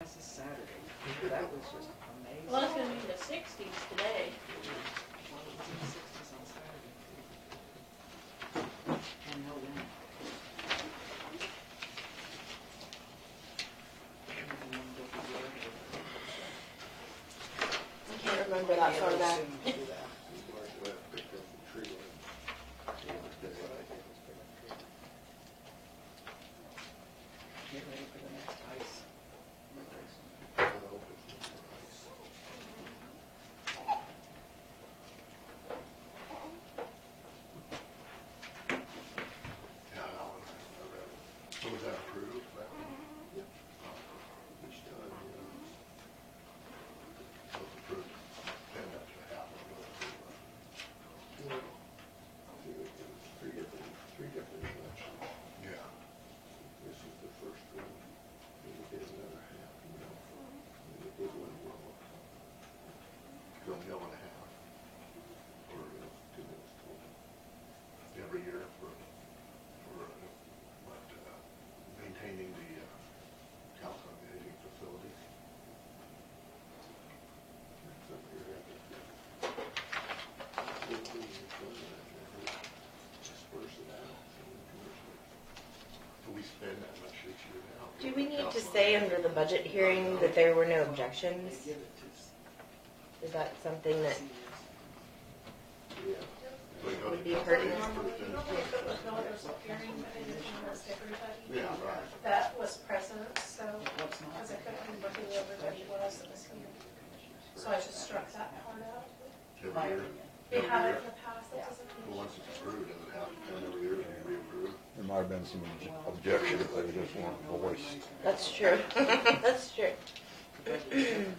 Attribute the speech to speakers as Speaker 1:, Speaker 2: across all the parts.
Speaker 1: That's a Saturday. That was just amazing.
Speaker 2: Well, it's gonna be in the sixties today.
Speaker 1: Well, it was in the 60s on Saturday, too. And no wind. And the wind will be there.
Speaker 3: I can't remember that far back.
Speaker 1: Yeah, we'll soon do that. Get ready for the next ice.
Speaker 4: Was that approved? that one? Each time, you know. So it's approved. Then that's what happened. Two, two, Three different, three different elections. Yeah. This is the first one. Then we did another half, you know. Then we did one more. So a mill and a half. Or uh, two mills total. Every year for, for, uh, what, uh, maintaining the uh, council on aging facilities. That's up here, I think, yeah. Fifteen years ago, I think, just first it out, so we commercially- Do we spend that much each year now?
Speaker 3: Do we need to
Speaker 4: Council on
Speaker 3: say
Speaker 4: Aging.
Speaker 3: under the budget hearing that there were no objections?
Speaker 1: They give it to s-
Speaker 3: Is that something that,
Speaker 1: seniors.
Speaker 4: Yeah. So we go to
Speaker 3: Would be
Speaker 4: council on
Speaker 3: hurting.
Speaker 4: aging
Speaker 2: Normally,
Speaker 4: first,
Speaker 2: you
Speaker 4: then-
Speaker 2: know, if it was no other hearing, but it is almost everybody.
Speaker 4: Yeah, right.
Speaker 2: That was present, so,
Speaker 1: What's not
Speaker 2: because I
Speaker 1: there.
Speaker 2: couldn't remember who everybody was that was here. So I just struck that part out.
Speaker 4: Every
Speaker 1: My
Speaker 4: year.
Speaker 1: opinion.
Speaker 2: We
Speaker 4: Every
Speaker 2: have it
Speaker 4: year.
Speaker 2: in the past, that doesn't
Speaker 4: Well,
Speaker 2: mean.
Speaker 4: once it's approved, doesn't have to come every year and be reapproved.
Speaker 5: There might have been some objections, they just weren't voiced.
Speaker 3: that's true, that's true.
Speaker 1: The budget-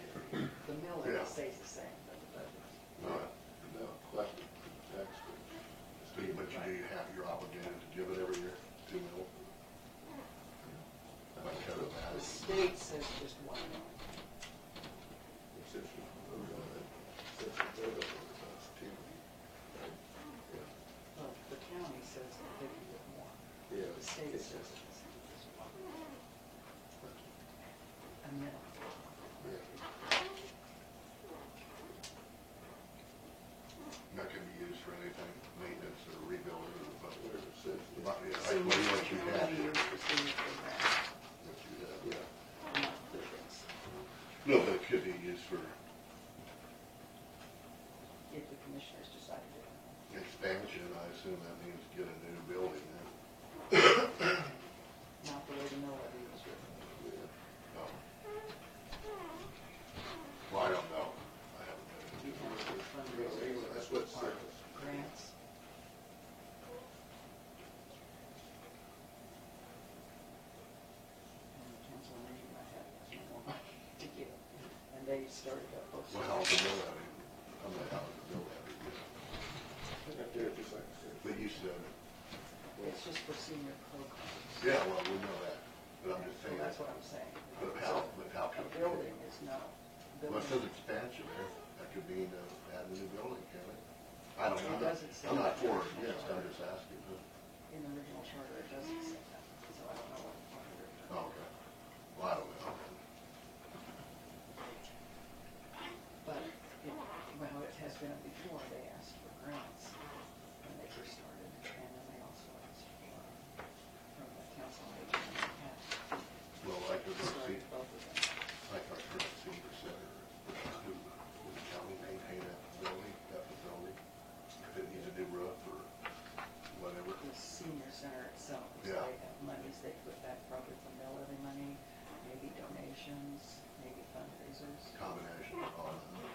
Speaker 1: the mill
Speaker 4: Yeah.
Speaker 1: levy stays the same, but the budget.
Speaker 4: No, no, collected tax. rate. So you, but you do, you have, you're obligated to give it every year, two mil. By code of
Speaker 1: The
Speaker 4: ethics.
Speaker 1: state says just one mill.
Speaker 4: It's just, uh, it's just, uh, it's two.
Speaker 1: Well, the county says that they can get more.
Speaker 4: Yeah,
Speaker 1: The state
Speaker 4: it's
Speaker 1: says
Speaker 4: just-
Speaker 1: it's just one. A mill.
Speaker 4: Not gonna be used for anything, maintenance or rebuilding or what- whatever it says. But, yeah,
Speaker 1: So
Speaker 4: like what you- what you
Speaker 1: how
Speaker 4: have
Speaker 1: many
Speaker 4: here,
Speaker 1: years the seniors been back?
Speaker 4: what you have, yeah.
Speaker 1: Not buildings.
Speaker 4: No, but it could be used for
Speaker 1: If the commissioners decided to.
Speaker 4: expansion, I assume that means get a new building then.
Speaker 1: Not the way the mill levy was written.
Speaker 4: No. Well, I don't know. I haven't
Speaker 1: You
Speaker 4: been.
Speaker 1: have to
Speaker 4: Yeah,
Speaker 1: fundraise.
Speaker 4: anyway, That's what
Speaker 1: Part
Speaker 4: circles.
Speaker 1: grants. And the council on aging might have more money to give, and they started up. those-
Speaker 4: Well, the mill levy, I'm not out of the mill levy, yeah. But you said,
Speaker 1: It's just for senior programs.
Speaker 4: yeah, well, we know that, but I'm just saying.
Speaker 1: That's what I'm saying.
Speaker 4: But how, but how
Speaker 1: A
Speaker 4: can?
Speaker 1: building is not.
Speaker 4: Well, it says
Speaker 1: building.
Speaker 4: expansion there, that could mean uh, add a new building, can it? I don't
Speaker 1: It
Speaker 4: know.
Speaker 1: doesn't say
Speaker 4: I'm not
Speaker 1: that.
Speaker 4: for it, yes, I'm just asking.
Speaker 1: In the original charter, it doesn't say that, so I don't know what. part of it.
Speaker 4: Oh, okay. Well, I don't know.
Speaker 1: But, it- well, it has been before, they asked for grants when they first started, and then they also asked for, from the council on aging, and they had
Speaker 4: Well, like the,
Speaker 1: started both of them.
Speaker 4: like our current senior center, who, would the county maintain that building, that facility? If it needs a new roof or whatever.
Speaker 1: The senior center itself, is
Speaker 4: Yeah.
Speaker 1: they have monies they put back probably from their levy money, maybe donations, maybe fundraisers.
Speaker 4: combination of all of them.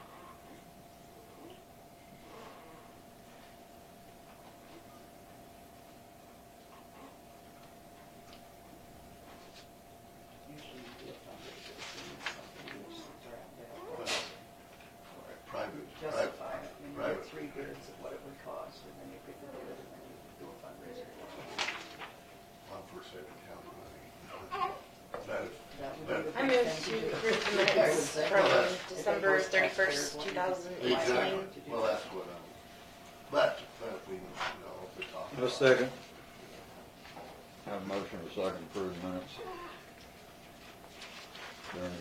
Speaker 1: Usually you do a fundraiser, so it's something you just throw out there.
Speaker 4: Well,
Speaker 1: or-
Speaker 4: Private, private,
Speaker 1: justify it, and you
Speaker 4: Right.
Speaker 1: get three bids of what it would cost, and then you pick the bid, and then you do a fundraiser.
Speaker 4: on for saving county money. That is,
Speaker 1: That would be the
Speaker 3: I
Speaker 1: best
Speaker 3: moved
Speaker 1: thing
Speaker 3: to
Speaker 1: do.
Speaker 3: approve the minutes
Speaker 1: If it
Speaker 3: from
Speaker 1: was-
Speaker 3: December
Speaker 1: if it was
Speaker 3: 31st,
Speaker 1: taxpayers,
Speaker 3: 2018.
Speaker 1: why would
Speaker 4: exactly,
Speaker 1: you do
Speaker 4: well,
Speaker 1: that?
Speaker 4: that's what I'm, but, but we, you know, if we talk.
Speaker 5: A
Speaker 4: about-
Speaker 5: second. Have a motion to second approve the minutes. During the